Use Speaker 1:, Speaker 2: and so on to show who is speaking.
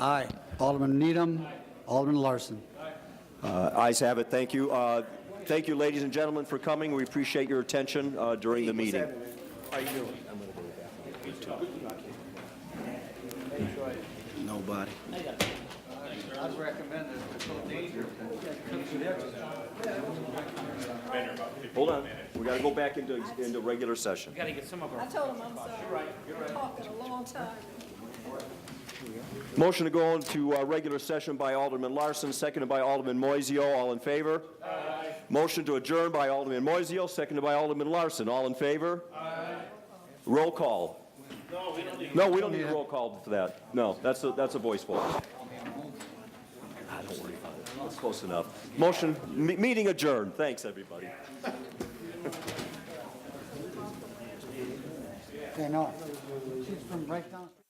Speaker 1: Aye. Alderman Needham. Alderman Larson.
Speaker 2: Uh, Ayes have it, thank you. Uh, Thank you, ladies and gentlemen, for coming. We appreciate your attention uh, during the meeting.
Speaker 1: Nobody.
Speaker 2: Hold on, we got to go back into, into regular session.
Speaker 3: Gotta get some of
Speaker 4: I
Speaker 3: our,
Speaker 4: told him I'm sorry. Talking a long time.
Speaker 2: Motion to go into uh, regular session by Alderman Larson, seconded by Alderman Moiseo. All in favor? Aye. Motion to adjourn by Alderman Moiseo, seconded by Alderman Larson. All in favor? Aye. Roll call. No, we don't need a roll call for that. No, that's a, that's a voice vote. Ah, Don't worry about it. That's close enough. Motion, me- meeting adjourned. Thanks, everybody.
Speaker 1: Okay, no. She's from right down.